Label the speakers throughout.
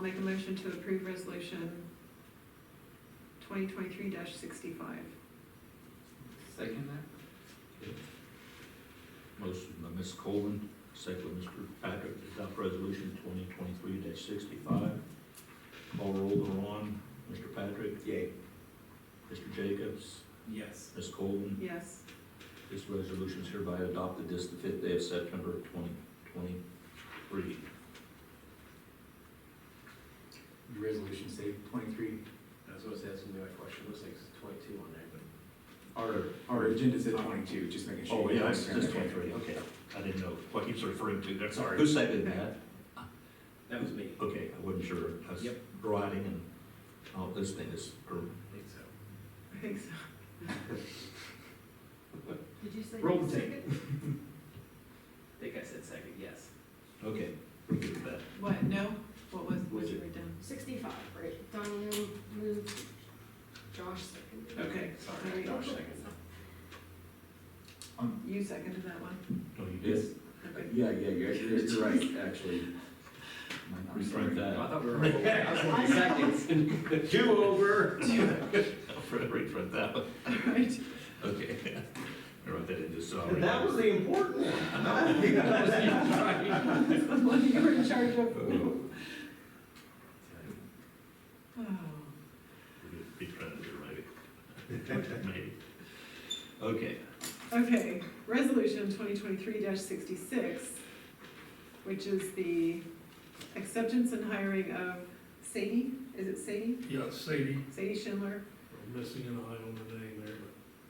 Speaker 1: make a motion to approve resolution twenty twenty-three sixty-five.
Speaker 2: Second
Speaker 3: Motion by Ms. Colvin, second by Mr. Patrick, to adopt resolution twenty twenty-three sixty-five. Call roll thereon, Mr. Patrick,
Speaker 2: that? Yay.
Speaker 3: Mr. Jacobs,
Speaker 2: Yes.
Speaker 3: Ms. Colvin.
Speaker 1: Yes.
Speaker 3: This resolution is hereby adopted this the fifth day of September twenty twenty-three.
Speaker 2: The Resolution say twenty-three. That's what it says in the question, looks like it's twenty-two on there, but.
Speaker 3: Our,
Speaker 4: Our agenda said twenty-two, just making sure.
Speaker 3: oh, yeah, it's
Speaker 4: it's
Speaker 3: just twenty-three, okay. I didn't know what he was referring to, there.
Speaker 2: Sorry.
Speaker 3: Who seconded that?
Speaker 2: That was me.
Speaker 3: Okay, I wasn't sure. I was
Speaker 2: Yep.
Speaker 3: Writing and, oh, this thing is, or
Speaker 2: I think so.
Speaker 1: I think so.
Speaker 5: Did you say?
Speaker 2: Roll the
Speaker 5: second?
Speaker 2: I think I said second, yes.
Speaker 3: Okay, we're good with that.
Speaker 1: What, no? What was, what
Speaker 3: Was
Speaker 1: you
Speaker 3: it-
Speaker 1: write down?
Speaker 5: Sixty-five, right, Donnie moved, Josh seconded.
Speaker 1: Okay,
Speaker 2: Sorry,
Speaker 1: All right.
Speaker 2: Josh second.
Speaker 1: You seconded that one?
Speaker 3: No, Oh, you
Speaker 4: Yes,
Speaker 3: did.
Speaker 1: Okay.
Speaker 4: yeah, yeah, you're, you're you're right, actually. I'm sorry.
Speaker 3: Reprint
Speaker 2: I
Speaker 3: that.
Speaker 2: thought we were, I was looking seconds. Two over.
Speaker 3: Reprint that one.
Speaker 1: All right.
Speaker 3: Okay. I wrote that in just so.
Speaker 2: That was the important one.
Speaker 1: That's the one you were in charge of. Oh,
Speaker 3: Reprinted it, right? Maybe. Okay,
Speaker 1: Okay, resolution twenty twenty-three sixty-six, which is the acceptance and hiring of Sadie, is it Sadie?
Speaker 6: Yeah, Sadie,
Speaker 1: Sadie Schindler,
Speaker 6: I'm missing an eye on the name there,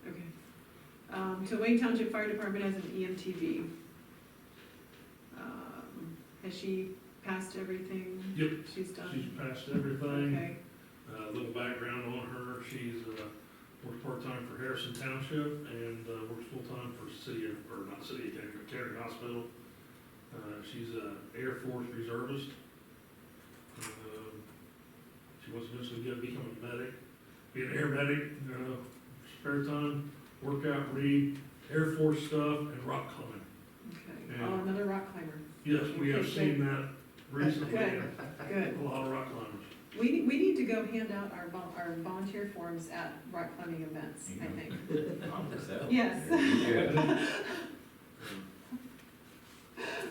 Speaker 6: but
Speaker 1: okay. Um, to Wayne Township Fire Department as an E EMTV. Um, Has she passed everything?
Speaker 6: Yep.
Speaker 1: She's
Speaker 6: she's
Speaker 1: done?
Speaker 6: passed everything.
Speaker 1: Okay,
Speaker 6: Uh, A little background on her, she's, uh, works part-time for Harrison Township and uh, works full-time for city, of- or not city, County- County Hospital. Uh, She's a Air Force reservist. Um, She wants to eventually get, become a medic, be an air medic, uh, spare time, workout, read, Air Force stuff, and rock climbing.
Speaker 1: okay.
Speaker 6: Yeah.
Speaker 1: Oh, another rock climber,
Speaker 6: Yes, we have seen that recently, and
Speaker 1: good.
Speaker 6: a lot of rock climbers.
Speaker 1: We, need- we need to go hand out our vol, our volunteer forms at rock climbing events, I think. Yes,
Speaker 4: Yeah.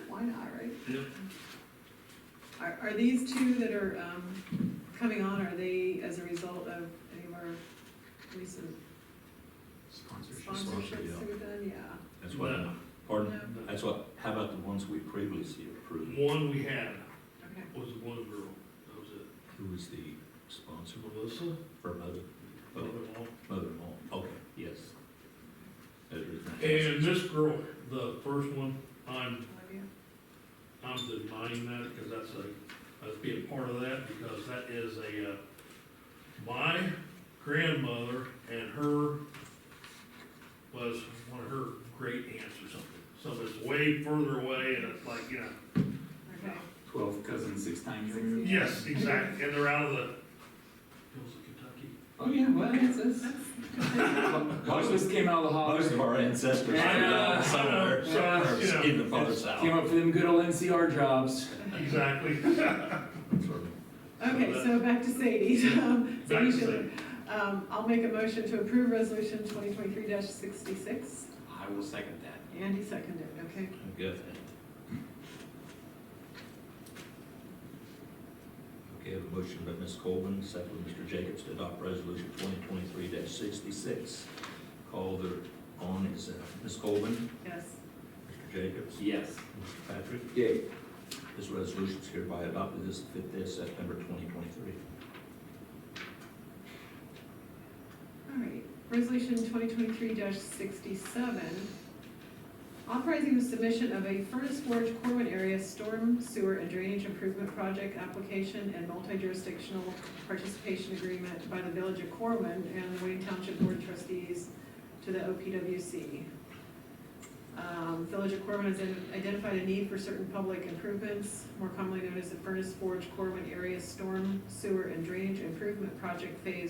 Speaker 1: why not, right?
Speaker 6: Yep.
Speaker 1: Are, are these two that are, um, coming on, are they as a result of any of our recent
Speaker 3: Sponsorship,
Speaker 1: sponsorships
Speaker 3: yeah.
Speaker 1: we've done? Yeah.
Speaker 3: that's what,
Speaker 6: No.
Speaker 3: pardon,
Speaker 1: No?
Speaker 3: that's what, how about the ones we previously approved?
Speaker 6: One we had
Speaker 1: Okay.
Speaker 6: was the one girl, that was it.
Speaker 3: Who was the sponsor
Speaker 6: Melissa,
Speaker 3: or mother,
Speaker 6: mother-in-law.
Speaker 3: mother-in-law? Okay, yes. That is-
Speaker 6: And this girl, the first one, I'm,
Speaker 1: Olivia?
Speaker 6: I'm denying that because that's a, that's being part of that because that is a, uh, my grandmother and her was one of her great aunts or something. So it's way further away and it's like, you know,
Speaker 1: Okay.
Speaker 4: Twelve cousins, six times
Speaker 1: Six
Speaker 4: removed.
Speaker 6: Yes, exactly, and they're out of the, hills of Kentucky.
Speaker 4: Oh, yeah, well, it's, it's, most of us came out of the
Speaker 3: Most of
Speaker 4: holler,
Speaker 3: our ancestors are
Speaker 4: Yeah,
Speaker 3: down
Speaker 6: I
Speaker 3: somewhere,
Speaker 6: know. Yeah,
Speaker 3: somewhere
Speaker 6: uh, you
Speaker 3: in the far south.
Speaker 4: came up for them good old NCR jobs.
Speaker 6: Exactly.
Speaker 1: Okay, so back to Sadie. Um,
Speaker 6: Back
Speaker 1: Sadie
Speaker 6: to
Speaker 1: Schiller.
Speaker 6: Sadie.
Speaker 1: Um, I'll make a motion to approve resolution twenty twenty-three sixty-six.
Speaker 2: I will second that.
Speaker 1: Andy seconded, okay.
Speaker 3: I got that. Okay, I have a motion by Ms. Colvin, second by Mr. Jacobs to adopt resolution twenty twenty-three sixty-six. Call the, on is, uh, Ms. Colvin,
Speaker 1: Yes.
Speaker 3: Mr. Jacobs,
Speaker 2: Yes.
Speaker 3: Mr. Patrick.
Speaker 4: Yeah.
Speaker 3: This resolution is hereby adopted this fifth day of September twenty twenty-three.
Speaker 1: All right, resolution twenty twenty-three sixty-seven. Authorizing the submission of a furnace forge Corwin area storm sewer and drainage improvement project application and multi-jurisdictional participation agreement by the village of Corwin and the Wayne Township Board of Trustees to the OPWC. Um, Village of Corwin has in- identified a need for certain public improvements, more commonly known as the furnace forge Corwin area storm sewer and drainage improvement project phase